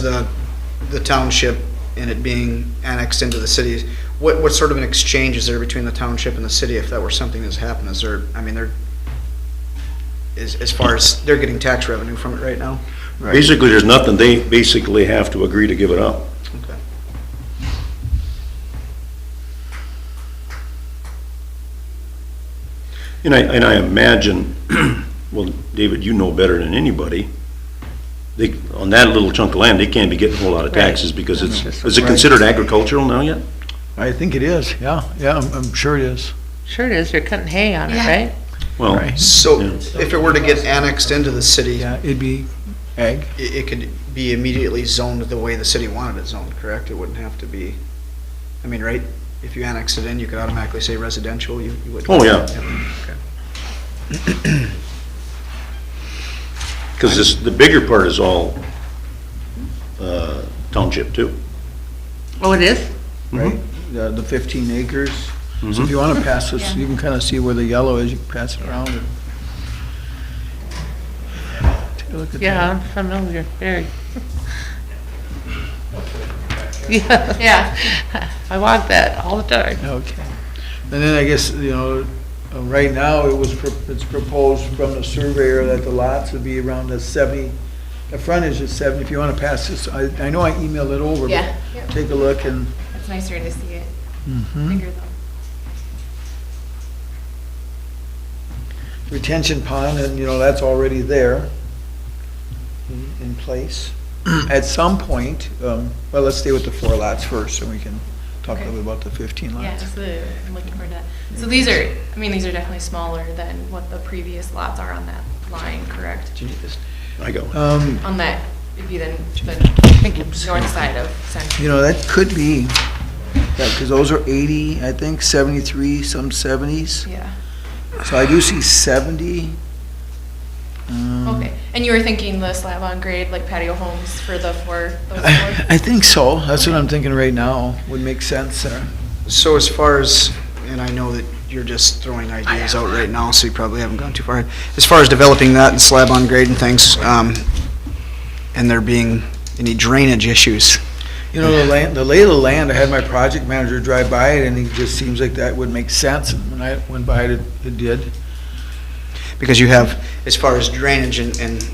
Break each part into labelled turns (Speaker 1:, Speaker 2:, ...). Speaker 1: the, the township and it being annexed into the city, what, what sort of an exchange is there between the township and the city if that were something that's happened? Is there, I mean, they're, as, as far as, they're getting tax revenue from it right now?
Speaker 2: Basically, there's nothing, they basically have to agree to give it up.
Speaker 1: Okay.
Speaker 2: And I, and I imagine, well, David, you know better than anybody, they, on that little chunk of land, they can't be getting a whole lot of taxes because it's, is it considered agricultural now yet?
Speaker 3: I think it is, yeah, yeah, I'm, I'm sure it is.
Speaker 4: Sure it is, you're cutting hay on it, right?
Speaker 2: Well,
Speaker 3: Right.
Speaker 1: So
Speaker 2: Yeah.
Speaker 1: if it were to get annexed into the city, it,
Speaker 3: Yeah, it'd be ag.
Speaker 1: it could be immediately zoned the way the city wanted it zoned, correct? It wouldn't have to be, I mean, right? If you annex it in, you could automatically say residential, you, you would.
Speaker 2: Oh, yeah.
Speaker 1: okay.
Speaker 2: because this, the bigger part is all, uh, township too.
Speaker 4: Oh, it is?
Speaker 3: right? The the 15 acres. So if you want to pass this, you can kind of see where the yellow is, you can pass it around. and- Take a look at
Speaker 4: Yeah,
Speaker 3: that.
Speaker 4: I'm familiar, very. Yeah. Yeah. I walk that all the time.
Speaker 3: Okay. And then I guess, you know, uh, right now, it was, pro- it's proposed from the surveyor that the lots would be around the 70, the frontage is 70. If you want to pass this, I, I know I emailed it over. but
Speaker 5: Yeah.
Speaker 3: Take a look and,
Speaker 5: It's nicer to see it
Speaker 3: mhm.
Speaker 5: bigger though.
Speaker 3: retention pond, and, you know, that's already there in- in place. At some point, um, well, let's stay with the four lots first, and we can talk a little bit about the 15
Speaker 5: Yeah,
Speaker 3: lots.
Speaker 5: so I'm looking forward to that. So these are, I mean, these are definitely smaller than what the previous lots are on that line, correct?
Speaker 2: I go,
Speaker 3: Um,
Speaker 5: On that, it'd be then the north side of
Speaker 3: You
Speaker 5: Central.
Speaker 3: know, that could be, because those are 80, I think, 73, some 70s.
Speaker 5: Yeah,
Speaker 3: So I do see 70. um,
Speaker 5: okay. And you were thinking the slab on grade, like patio homes for the four, those
Speaker 3: I
Speaker 5: four?
Speaker 3: I think so. That's what I'm thinking right now. Would make sense uh, there.
Speaker 1: So as far as, and I know that you're just throwing ideas out right now, so you probably haven't gone too far. As far as developing that and slab on grade and things, um, and there being any drainage issues,
Speaker 3: You know, the land, the lay of the land, I had my project manager drive by it, and it just seems like that would make sense, and when I went by it, it it did.
Speaker 1: because you have, as far as drainage and, and,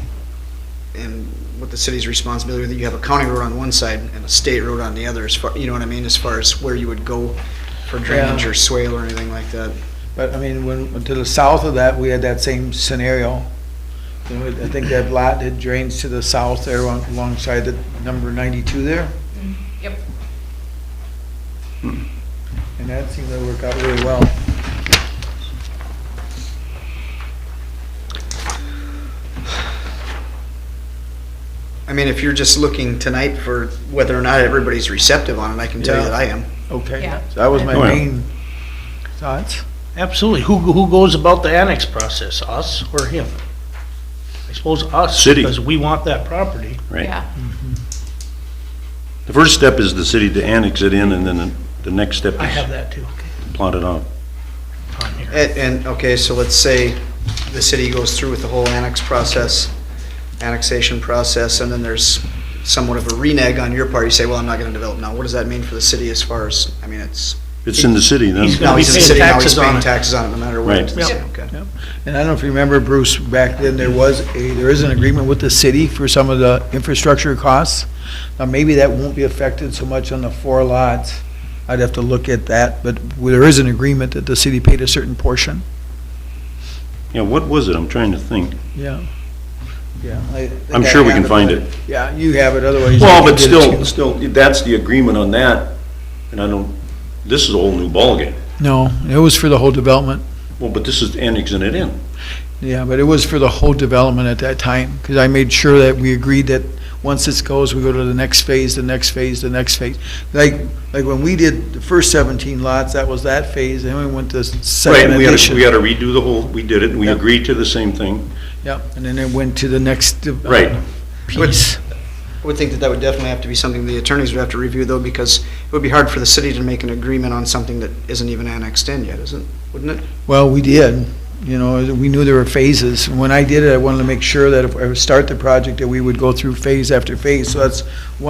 Speaker 1: and what the city's responsibility, that you have a county road on one side and a state road on the other, as far, you know what I mean, as far as where you would go for drainage
Speaker 3: Yeah.
Speaker 1: or swale or anything like that.
Speaker 3: But, I mean, when, to the south of that, we had that same scenario. You know, I think that lot that drains to the south there on- alongside the number ninety-two there,
Speaker 5: Yep.
Speaker 3: and that seemed to work out really well.
Speaker 1: I mean, if you're just looking tonight for whether or not everybody's receptive on it, I can tell you
Speaker 3: Yeah.
Speaker 1: that I am.
Speaker 3: Okay.
Speaker 5: Yeah.
Speaker 3: So that was my
Speaker 2: Oh, yeah.
Speaker 3: main thoughts.
Speaker 6: Absolutely. Who, who goes about the annex process, us or him? I suppose us.
Speaker 2: City.
Speaker 6: Because we want that property.
Speaker 2: right?
Speaker 5: Yeah,
Speaker 2: The first step is the city to annex it in, and then the- the next step
Speaker 6: I have
Speaker 2: is
Speaker 6: that too
Speaker 2: plot it out.
Speaker 6: on here.
Speaker 1: And, and, okay, so let's say the city goes through with the whole annex process, annexation process, and then there's somewhat of a reneg on your part, you say, well, I'm not gonna develop now, what does that mean for the city as far as, I mean, it's,
Speaker 2: It's in the city then.
Speaker 6: He's
Speaker 1: now
Speaker 6: gonna be
Speaker 1: he's in the
Speaker 6: paying
Speaker 1: city, now he's
Speaker 6: taxes on
Speaker 1: paying
Speaker 6: it.
Speaker 1: taxes on it, no matter what.
Speaker 2: Right.
Speaker 6: Yep.
Speaker 1: Okay.
Speaker 3: And I don't know if you remember, Bruce, back then, there was a, there is an agreement with the city for some of the infrastructure costs. Now, maybe that won't be affected so much on the four lots. I'd have to look at that, but there is an agreement that the city paid a certain portion.
Speaker 2: Yeah, what was it? I'm trying to think.
Speaker 3: Yeah. Yeah. I think
Speaker 2: I'm
Speaker 3: I
Speaker 2: sure we
Speaker 3: have
Speaker 2: can find it.
Speaker 3: Yeah, you have it, otherwise.
Speaker 2: Well,
Speaker 3: you
Speaker 2: but
Speaker 3: can get it
Speaker 2: still,
Speaker 3: too.
Speaker 2: still, that's the agreement on that, and I don't, this is a whole new ballgame.
Speaker 3: No, it was for the whole development.
Speaker 2: Well, but this is annexing it in.
Speaker 3: Yeah, but it was for the whole development at that time, because I made sure that we agreed that once this goes, we go to the next phase, the next phase, the next phase. Like, like when we did the first seventeen lots, that was that phase, and then we went to
Speaker 2: Right,
Speaker 3: second
Speaker 2: and we had to,
Speaker 3: edition.
Speaker 2: we had to redo the whole, we did it, and we
Speaker 3: Yep.
Speaker 2: agreed to the same thing.
Speaker 3: Yep, and then it went to the next. uh,
Speaker 2: Right.
Speaker 3: Piece.
Speaker 1: I would think that that would definitely have to be something the attorneys would have to review, though, because it would be hard for the city to make an agreement on something that isn't even annexed in yet, isn't, wouldn't it?
Speaker 3: Well, we did, You know, we knew there were phases. When I did it, I wanted to make sure that if I would start the project, that we would go through phase after phase. So that's one